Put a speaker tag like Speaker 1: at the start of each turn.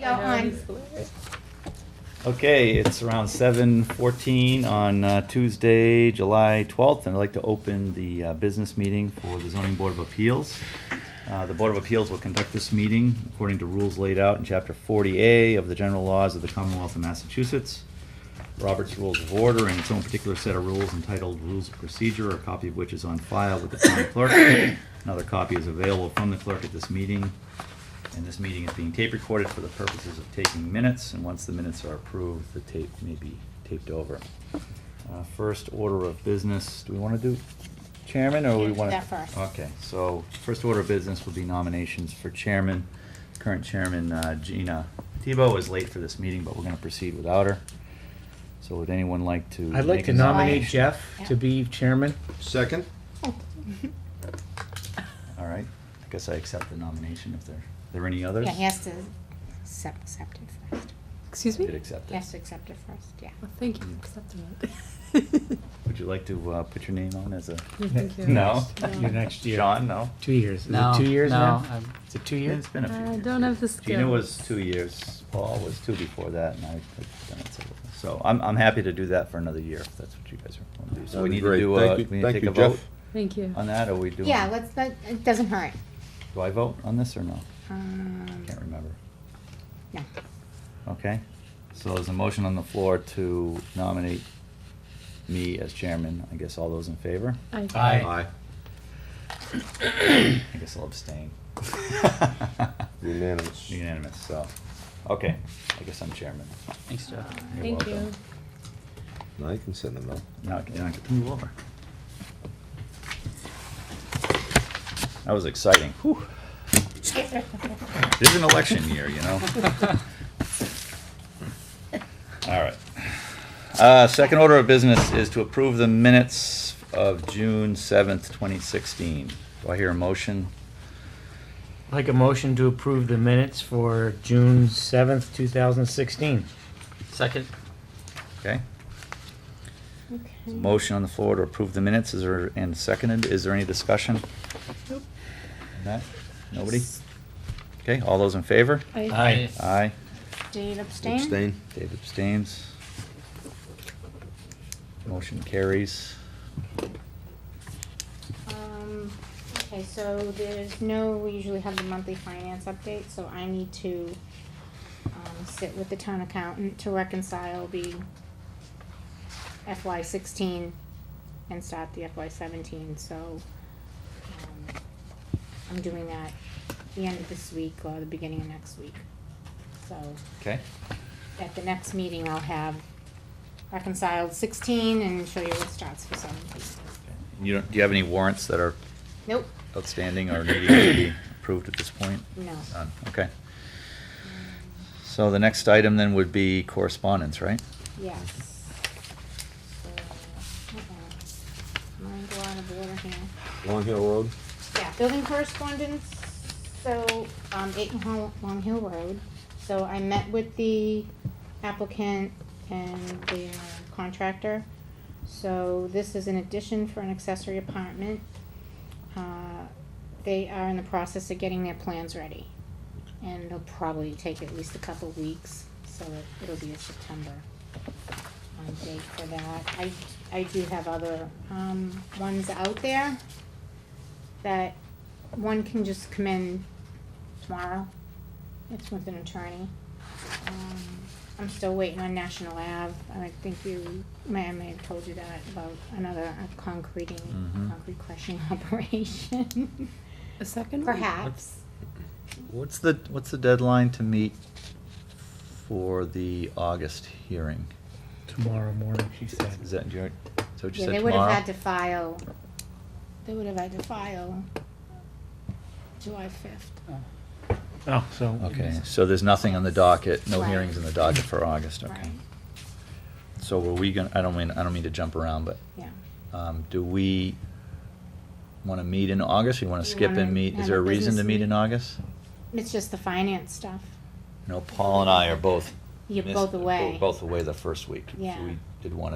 Speaker 1: go on.
Speaker 2: Okay, it's around seven fourteen on uh, Tuesday, July twelfth, and I'd like to open the uh, business meeting for the zoning board of appeals. Uh, The Board of Appeals will conduct this meeting according to rules laid out in Chapter 40A of the General Laws of the Commonwealth of Massachusetts, Robert's Rules of Order, and its own particular set of rules entitled Rules of Procedure, a copy of which is on file with the town clerk. Another copy is available from the clerk at this meeting. And this meeting is being tape recorded for the purposes of taking minutes, and once the minutes are approved, the tape may be taped over. Uh, First order of business, do we want to do chairman, or
Speaker 1: Yeah,
Speaker 2: we
Speaker 1: do
Speaker 2: want to?
Speaker 1: that first.
Speaker 2: Okay, so first order of business will be nominations for chairman. Current chairman uh, Gina Tebow is late for this meeting, but we're going to proceed without her. So would anyone like to? make
Speaker 3: I'd like to
Speaker 2: a
Speaker 3: nominate
Speaker 2: nomination?
Speaker 3: Jeff to be chairman.
Speaker 4: Second?
Speaker 2: All right, I guess I accept the nomination if there, are there any others?
Speaker 1: Yeah, he has to accept, accept it first.
Speaker 5: Excuse
Speaker 2: Did
Speaker 5: me?
Speaker 2: accept
Speaker 1: He
Speaker 2: it.
Speaker 1: has to accept it first, yeah.
Speaker 5: Well, thank you for accepting it.
Speaker 2: Would you like to uh, put your name on as a?
Speaker 5: You think you're
Speaker 2: No?
Speaker 5: next?
Speaker 3: You're next year.
Speaker 2: Sean, no?
Speaker 3: Two years. Is
Speaker 6: No,
Speaker 3: it two years
Speaker 6: no, uh,
Speaker 3: now?
Speaker 6: I'm-
Speaker 3: Is it two years?
Speaker 2: It's been a few
Speaker 5: I
Speaker 2: years.
Speaker 5: don't have the
Speaker 2: Gina
Speaker 5: skills.
Speaker 2: was two years, Paul was two before that, and I, I've done it several times. so I'm, I'm happy to do that for another year, if that's what you guys are wanting to do. So we
Speaker 4: That'd be
Speaker 2: need to
Speaker 4: great.
Speaker 2: do, uh,
Speaker 4: Thank
Speaker 2: we
Speaker 4: you-
Speaker 2: need to
Speaker 4: thank
Speaker 2: take
Speaker 4: you,
Speaker 2: a vote
Speaker 4: Jeff.
Speaker 5: Thank you.
Speaker 2: on that, or we do?
Speaker 1: Yeah, let's, that, it doesn't hurt.
Speaker 2: Do I vote on this or no?
Speaker 1: Um,
Speaker 2: Can't remember.
Speaker 1: no.
Speaker 2: Okay, so there's a motion on the floor to nominate me as chairman. I guess all those in favor?
Speaker 5: I-
Speaker 3: Aye.
Speaker 2: I guess I'll abstain.
Speaker 4: Unanimous.
Speaker 2: Unanimous, so, okay, I guess I'm chairman.
Speaker 6: Thanks, Jeff.
Speaker 2: You're
Speaker 5: Thank you.
Speaker 2: welcome.
Speaker 4: Now you can send them out.
Speaker 2: Now I can, now I can move over. That was exciting. Whew. It is an election year, you know? All right. Uh, second order of business is to approve the minutes of June seventh, twenty sixteen. Do I hear a motion?
Speaker 3: I'd Like a motion to approve the minutes for June seventh, two thousand sixteen.
Speaker 6: Second?
Speaker 2: Okay? There's a
Speaker 1: Okay.
Speaker 2: Motion on the floor to approve the minutes, is there, and seconded, is there any discussion? Not, nobody? Okay, all those in favor?
Speaker 5: I-
Speaker 3: Aye.
Speaker 2: Aye.
Speaker 1: Did you abstain?
Speaker 4: Abstain?
Speaker 2: Dave abstains. Motion carries.
Speaker 1: Um, okay, so there's no, we usually have the monthly finance update, so I need to, um, sit with the town accountant to reconcile the FY sixteen and start the FY seventeen, so, um, I'm doing that the end of this week or the beginning of next week. So,
Speaker 2: Okay,
Speaker 1: at the next meeting, I'll have reconciled sixteen and show you what starts for seventeen.
Speaker 2: you don't, do you have any warrants that are
Speaker 1: Nope,
Speaker 2: outstanding or needing to be approved at this point?
Speaker 1: no.
Speaker 2: None, okay. So the next item then would be correspondence, right?
Speaker 1: Yes. So, uh-oh. Mine go out of order here.
Speaker 4: Long Hill Road?
Speaker 1: Yeah, building correspondence, so, um, eight Hol- Long Hill Road. So I met with the applicant and the uh, contractor. So this is an addition for an accessory apartment. Uh, They are in the process of getting their plans ready. And it'll probably take at least a couple weeks, so it- it'll be a September um, date for that. I, I do have other, um, ones out there that one can just come in tomorrow. It's with an attorney. Um, I'm still waiting on National Ave. I think you, may, I may have told you that about another uh, concreting,
Speaker 2: Mhm.
Speaker 1: concrete crushing operation.
Speaker 5: A second? one?
Speaker 1: Perhaps.
Speaker 2: What's the, what's the deadline to meet for the August hearing?
Speaker 3: Tomorrow morning, she said.
Speaker 2: Is that, do you, so you
Speaker 1: Yeah,
Speaker 2: said
Speaker 1: they would have
Speaker 2: tomorrow?
Speaker 1: had to file, they would have had to file July fifth.
Speaker 3: Oh, so.
Speaker 2: Okay, so there's nothing on the docket, no
Speaker 1: Right.
Speaker 2: hearings in the docket for August, okay.
Speaker 1: Right,
Speaker 2: So were we gonna, I don't mean, I don't mean to jump around, but
Speaker 1: yeah.
Speaker 2: Um, do we wanna meet in August, you wanna
Speaker 1: Do you
Speaker 2: skip
Speaker 1: wanna
Speaker 2: and meet,
Speaker 1: have
Speaker 2: is there
Speaker 1: a
Speaker 2: a reason to
Speaker 1: business
Speaker 2: meet in
Speaker 1: meet-
Speaker 2: August?
Speaker 1: It's just the finance stuff.
Speaker 2: No, Paul and I are both.
Speaker 1: You're
Speaker 2: missed-
Speaker 1: both away.
Speaker 2: Both away the first week. So
Speaker 1: Yeah.
Speaker 2: We did wanna